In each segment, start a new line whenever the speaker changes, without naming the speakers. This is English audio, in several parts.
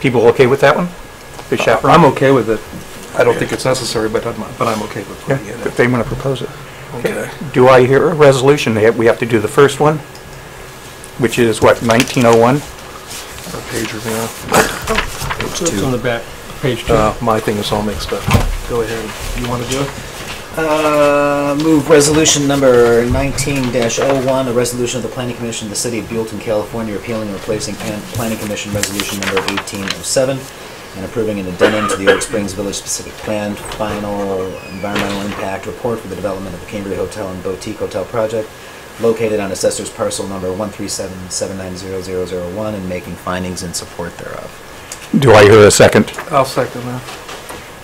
People okay with that one? The chaperone?
I'm okay with it. I don't think it's necessary, but I'm, but I'm okay with putting it
If they want to propose it.
in. Okay.
Do I hear a resolution? They have- We have to do the first one, which is what, 1901?
Our pager, yeah.
It's on the back, page two.
Uh, My thing is all mixed up. Go ahead. You want to do it?
Uh, Move resolution number 19-01, a resolution of the Planning Commission of the City of Buellton, California, repealing and replacing Pan- Planning Commission Resolution Number 1807, and approving an addendum to the Oak Springs Village Specific Plan Final Environmental Impact Report for the development of the Cambria Hotel and Boutique Hotel Project, located on Assessor's Parcel Number 137790001, and making findings in support thereof.
Do I hear a second?
I'll second that.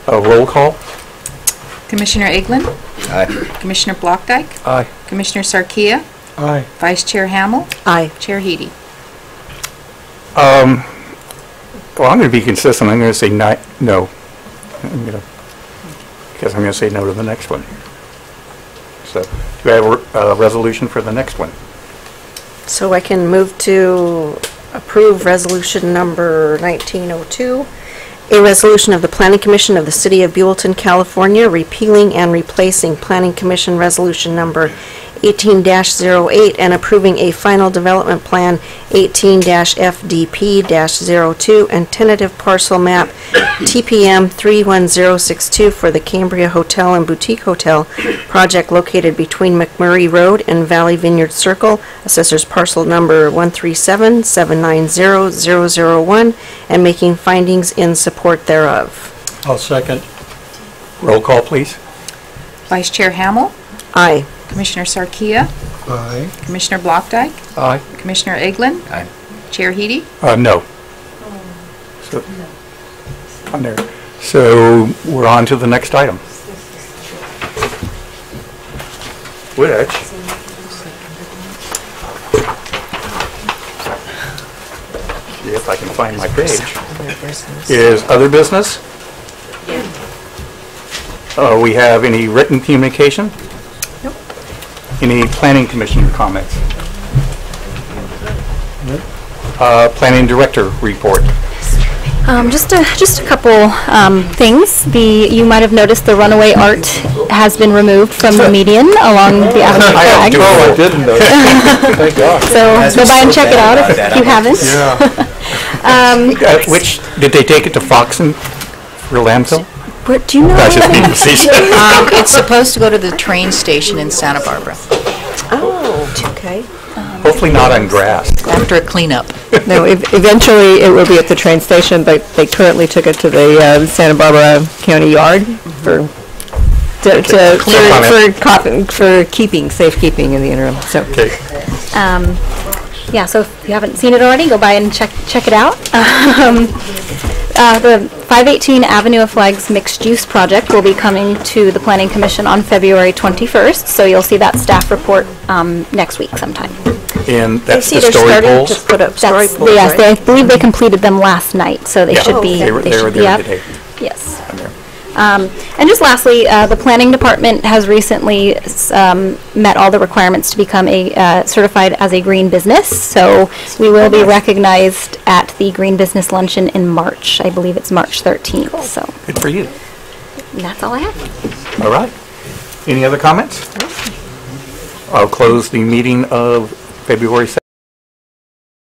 A roll call?
Commissioner Eglin?
Aye.
Commissioner Blockdyke?
Aye.
Commissioner Sarkia?
Aye.
Vice Chair Hamel?
Aye.
Chair Heady?
Well, I'm going to be consistent. I'm going to say ni- no. I'm going to, because I'm going to say no to the next one. So, do I have a a resolution for the next one?
So I can move to approve resolution number 1902, a resolution of the Planning Commission of the City of Buellton, California, repealing and replacing Planning Commission Resolution Number 18-08 and approving a final development plan 18-FDP-02 and tentative parcel map TPM 31062 for the Cambria Hotel and Boutique Hotel project located between McMurray Road and Valley Vineyard Circle, assessors parcel number 137790001, and making findings in support thereof.
I'll second.
Roll call, please.
Vice Chair Hamel?
Aye.
Commissioner Sarkia?
Aye.
Commissioner Blockdyke?
Aye.
Commissioner Eglin?
Aye.
Chair Heady?
Uh, no. So- On there. So we're on to the next item. Which if I can find my page, is other business? Uh, we have any written communication?
Nope.
Any planning commission comments? Uh, planning director report.
Um, just a just a couple um, things. The you might have noticed the runaway art has been removed from the median along the African flag.
do it.
I didn't know. Thank God.
So go by and check it out if
Guys are so bad about that.
you haven't. Um,
Uh, Which, did they take it to Foxen for landfill?
Where- do you know?
That's just being facetious.
Um, It's supposed to go to the train station in Santa Barbara
Oh, okay.
Hopefully not on grass.
after a cleanup.
No, ev- eventually it will be at the train station, but they currently took it to the uh, Santa Barbara County Yard for, to, to-
comment.
for, for cop- for keeping, safekeeping in the interim, so.
Okay.
Um, yeah, so if you haven't seen it already, go by and check check it out. Um, uh, the 518 Avenue of Flags mixed use project will be coming to the Planning Commission on February 21st. So you'll see that staff report um, next week sometime.
And that's the
see they're
story
starting to
poles?
put up story
That's-
poles,
Yes,
right?
they, I believe they completed them last night, so they
Yeah,
should be,
They were
they
they were
should be
there
up.
today.
Yes.
on there.
Um, And just lastly, uh, the Planning Department has recently s- um, met all the requirements to become a, uh, certified as a green business, so we will be recognized at the Green Business Luncheon in March. I believe it's March 13th, so
Good for you.
that's all I have.
All right. Any other comments? I'll close the meeting of February